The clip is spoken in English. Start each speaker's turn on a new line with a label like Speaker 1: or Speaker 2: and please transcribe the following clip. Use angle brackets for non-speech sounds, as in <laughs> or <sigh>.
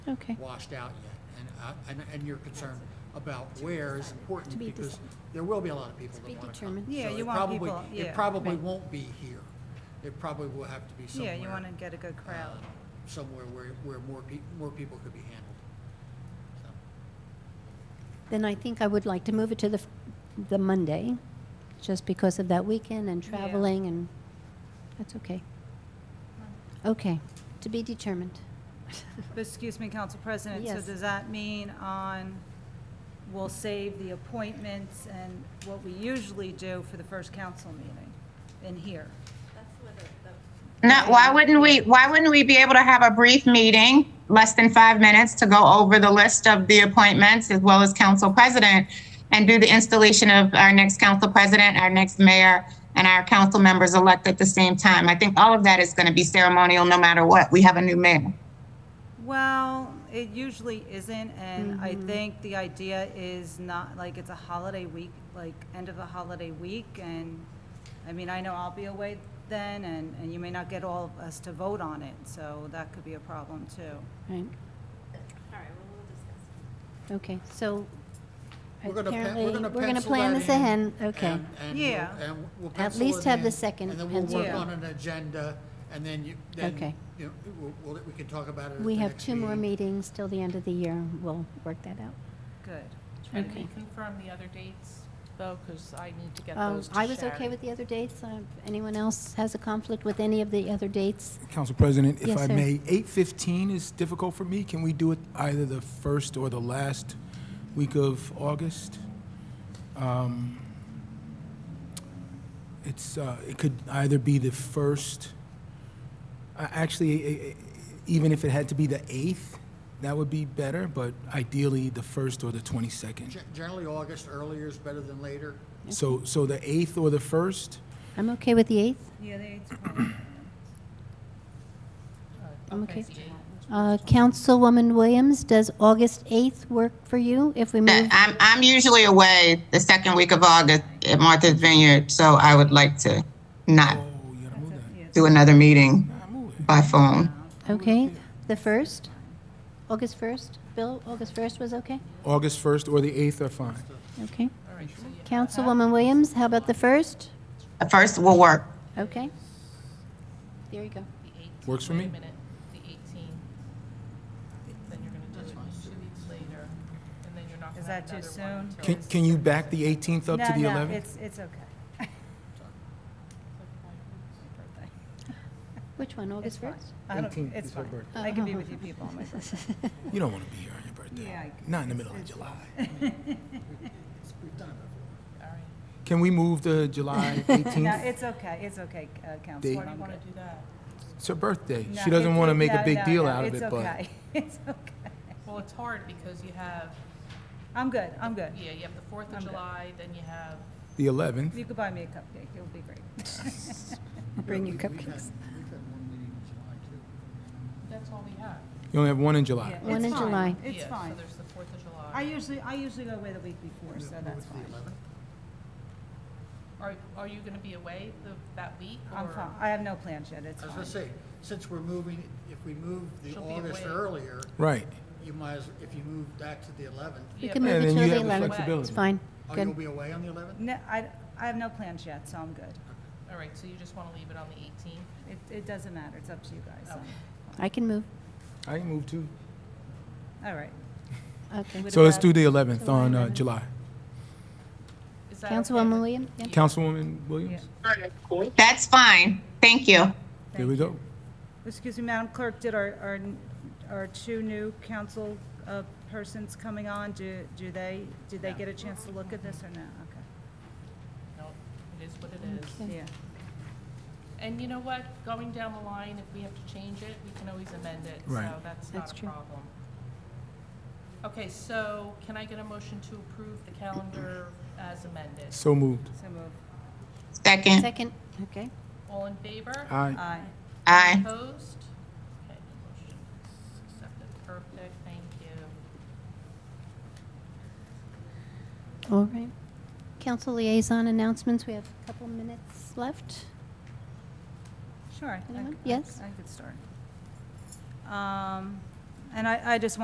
Speaker 1: Okay.
Speaker 2: washed out yet. And, uh, and, and your concern about where is important
Speaker 1: To be
Speaker 2: because
Speaker 1: dis-
Speaker 2: there will be a lot of people
Speaker 1: be
Speaker 2: that want to come.
Speaker 1: determined.
Speaker 3: Yeah,
Speaker 2: So
Speaker 3: you
Speaker 2: it
Speaker 3: want
Speaker 2: probably-
Speaker 3: people- yeah.
Speaker 2: It probably
Speaker 1: Right.
Speaker 2: won't be here. It probably will have to be
Speaker 3: Yeah,
Speaker 2: somewhere.
Speaker 3: you want to get a good crowd.
Speaker 2: uh, Somewhere where, where more people, more people could be handled. So.
Speaker 1: Then I think I would like to move it to the, f- the Monday, just because of that weekend and
Speaker 3: Yeah.
Speaker 1: traveling and, that's okay. Okay, to be determined. <laughs>
Speaker 3: But Excuse me, Council President, so
Speaker 1: Yes.
Speaker 3: does that mean on, we'll save the appointments and what we usually do for the first council meeting in here?
Speaker 4: No, why wouldn't we, why wouldn't we be able to have a brief meeting, less than five minutes, to go over the list of the appointments as well as council president and do the installation of our next council president, our next mayor, and our council members elect at the same time? I think all of that is going to be ceremonial no matter what. We have a new mayor.
Speaker 3: Well, it usually isn't, and I think the idea is not, like, it's a holiday week, like, end of the holiday week, and, I mean, I know I'll be away then, and, and you may not get all of us to vote on it, so that could be a problem, too.
Speaker 5: All
Speaker 1: Right,
Speaker 5: right, well, we'll discuss.
Speaker 1: okay, so
Speaker 2: We're gonna, pen-
Speaker 1: apparently,
Speaker 2: we're
Speaker 1: we're
Speaker 2: gonna
Speaker 1: going to
Speaker 2: pencil
Speaker 1: plan
Speaker 2: that
Speaker 1: this
Speaker 2: in,
Speaker 1: ahead, okay.
Speaker 2: and- and we'll-
Speaker 3: Yeah.
Speaker 2: and we'll
Speaker 1: At
Speaker 2: pencil
Speaker 1: least
Speaker 2: it
Speaker 1: have the
Speaker 2: in,
Speaker 1: second
Speaker 2: And then we'll
Speaker 1: pencil.
Speaker 2: work
Speaker 3: Yeah.
Speaker 2: on an agenda, and then you, then,
Speaker 1: Okay.
Speaker 2: you know, we'll- we'll, we can talk about it at the
Speaker 1: We have
Speaker 2: next
Speaker 1: two more
Speaker 2: meeting.
Speaker 1: meetings till the end of the year, we'll work that out.
Speaker 3: Good.
Speaker 6: Try to
Speaker 1: Okay.
Speaker 6: reconfirm the other dates, though, because I need to get
Speaker 1: Um,
Speaker 6: those to
Speaker 1: I was
Speaker 6: Sharon.
Speaker 1: okay with the other dates, Uh, anyone else has a conflict with any of the other dates?
Speaker 7: Council President, if
Speaker 1: Yes,
Speaker 7: I
Speaker 1: sir.
Speaker 7: may, 8:15 is difficult for me. Can we do it either the first or the last week of August? Um, It's, uh, it could either be the first, I- actually, e- e- even if it had to be the 8th, that would be better, but ideally, the first or the 22nd.
Speaker 2: Gen- Generally, August earlier is better than later.
Speaker 7: So, so the 8th or the first?
Speaker 1: I'm okay with the 8th.
Speaker 3: Yeah, they, it's fine.
Speaker 1: I'm okay. Uh, Councilwoman Williams, does August 8th work for you if we
Speaker 4: Mm-hmm.
Speaker 1: move?
Speaker 4: I'm, I'm usually away the second week of August at Martha's Vineyard, so I would like to not
Speaker 7: Oh, you gotta move that.
Speaker 4: do another meeting
Speaker 7: Nah, move it.
Speaker 4: by phone.
Speaker 1: Okay, the 1st? August 1st? Bill, August 1st was okay?
Speaker 7: August 1st or the 8th are fine.
Speaker 1: Okay. Councilwoman Williams, how about the 1st?
Speaker 4: The first will work.
Speaker 1: Okay. There you go.
Speaker 6: The 18th.
Speaker 7: Works for
Speaker 6: Wait a
Speaker 7: me.
Speaker 6: minute, the 18th. Then you're going to do it two weeks later, and then you're not going
Speaker 3: Is
Speaker 6: to
Speaker 3: that
Speaker 6: have
Speaker 3: too
Speaker 6: another one
Speaker 3: soon?
Speaker 6: until
Speaker 7: Can, can you back the 18th up to the 11th?
Speaker 3: No, no, it's, it's okay.
Speaker 1: Which one,
Speaker 3: It's
Speaker 1: August
Speaker 3: fine.
Speaker 1: 1st?
Speaker 3: I don't,
Speaker 7: 18th
Speaker 3: it's
Speaker 7: is her
Speaker 3: fine. I
Speaker 7: birthday.
Speaker 1: Uh-huh.
Speaker 3: can be with you people
Speaker 1: <laughs>
Speaker 3: on my birthday.
Speaker 7: You don't want to be here on your birthday.
Speaker 3: Yeah, I-
Speaker 7: Not in the middle of July.
Speaker 2: We've done it before.
Speaker 6: All right.
Speaker 7: Can we move to July
Speaker 3: <laughs> No,
Speaker 7: 18th?
Speaker 3: it's okay, it's okay, uh,
Speaker 7: Date.
Speaker 3: Council.
Speaker 6: Why do
Speaker 3: I'm
Speaker 6: you want
Speaker 3: good.
Speaker 6: to do that?
Speaker 7: It's her birthday.
Speaker 3: No,
Speaker 7: She doesn't
Speaker 3: it's
Speaker 7: want to
Speaker 3: o-
Speaker 7: make a
Speaker 3: no,
Speaker 7: big
Speaker 3: no,
Speaker 7: deal
Speaker 3: no,
Speaker 7: out of
Speaker 3: it's
Speaker 7: it, but
Speaker 3: okay. <laughs> It's okay.
Speaker 6: Well, it's hard because you have,
Speaker 3: I'm good, I'm good.
Speaker 6: yeah, you have the 4th
Speaker 3: I'm
Speaker 6: of
Speaker 3: good.
Speaker 6: July, then you have,
Speaker 7: the 11th.
Speaker 3: You could buy me a cupcake, it'll be
Speaker 7: <laughs>
Speaker 3: great. <laughs>
Speaker 1: Bring your
Speaker 2: Yeah, we- we've had-
Speaker 1: cupcakes.
Speaker 2: We've had one meeting in July, too.
Speaker 6: that's all we have.
Speaker 7: You only have one in July.
Speaker 3: Yeah,
Speaker 1: One
Speaker 3: it's
Speaker 1: in
Speaker 3: fine,
Speaker 1: July.
Speaker 3: It's
Speaker 6: Yeah,
Speaker 3: fine.
Speaker 6: So there's the 4th of
Speaker 3: I
Speaker 6: July.
Speaker 3: usually, I usually go away the week before, so that's
Speaker 2: The
Speaker 3: fine.
Speaker 2: 11th?
Speaker 6: Are, are you going to be away the, that week?
Speaker 3: I'm
Speaker 6: or-
Speaker 3: fine, I have no plans yet, it's
Speaker 2: I was
Speaker 3: fine.
Speaker 2: gonna say, since we're moving, if we move the
Speaker 6: She'll be
Speaker 2: August
Speaker 6: away.
Speaker 2: earlier,
Speaker 7: Right.
Speaker 2: you might as, if you move that to the 11th,
Speaker 1: We
Speaker 6: Yeah,
Speaker 1: can
Speaker 6: but-
Speaker 1: move
Speaker 7: And
Speaker 1: it
Speaker 7: then
Speaker 1: to
Speaker 7: you
Speaker 1: the
Speaker 7: have the
Speaker 1: 11th.
Speaker 6: flexibility.
Speaker 1: It's fine.
Speaker 2: oh, you'll
Speaker 1: Good.
Speaker 2: be away on the 11th?
Speaker 3: No, I, I have no plans yet, so I'm good.
Speaker 6: All right, so you just want to leave it on the 18th?
Speaker 3: It, it doesn't matter, it's up to you guys. so.
Speaker 1: I can move.
Speaker 7: I can move too.
Speaker 3: All right.
Speaker 1: Okay.
Speaker 7: So let's
Speaker 3: about
Speaker 7: do the 11th
Speaker 1: July
Speaker 7: on uh,
Speaker 1: 11th?
Speaker 7: July.
Speaker 6: Is that okay
Speaker 1: Councilwoman
Speaker 6: with-
Speaker 1: Williams? Yeah.
Speaker 7: Councilwoman Williams?
Speaker 4: That's fine. Thank you.
Speaker 7: There we go.
Speaker 3: Excuse me, Madam Clerk, did our, our, our two new council uh, persons coming on, do, do they, did they get a chance to look at this or no?
Speaker 6: No, it is what it is.
Speaker 3: Okay, yeah.
Speaker 6: And you know what, going down the line, if we have to change it, we can always amend it, so
Speaker 7: Right.
Speaker 6: that's
Speaker 1: That's
Speaker 6: not a
Speaker 1: true.
Speaker 6: problem. Okay, so can I get a motion to approve the calendar as amended?
Speaker 7: So moved.
Speaker 3: So move.
Speaker 4: Second.
Speaker 1: Second, okay.
Speaker 6: All in favor?
Speaker 7: Aye.
Speaker 3: Aye.
Speaker 4: Aye.
Speaker 6: Opposed? Okay, the motion is accepted, perfect, thank you.
Speaker 1: All right. Council liaison announcements, we have a couple minutes left.
Speaker 3: Sure. I- I-
Speaker 1: Anyone? Yes?
Speaker 3: I could start. Um, And I, I just want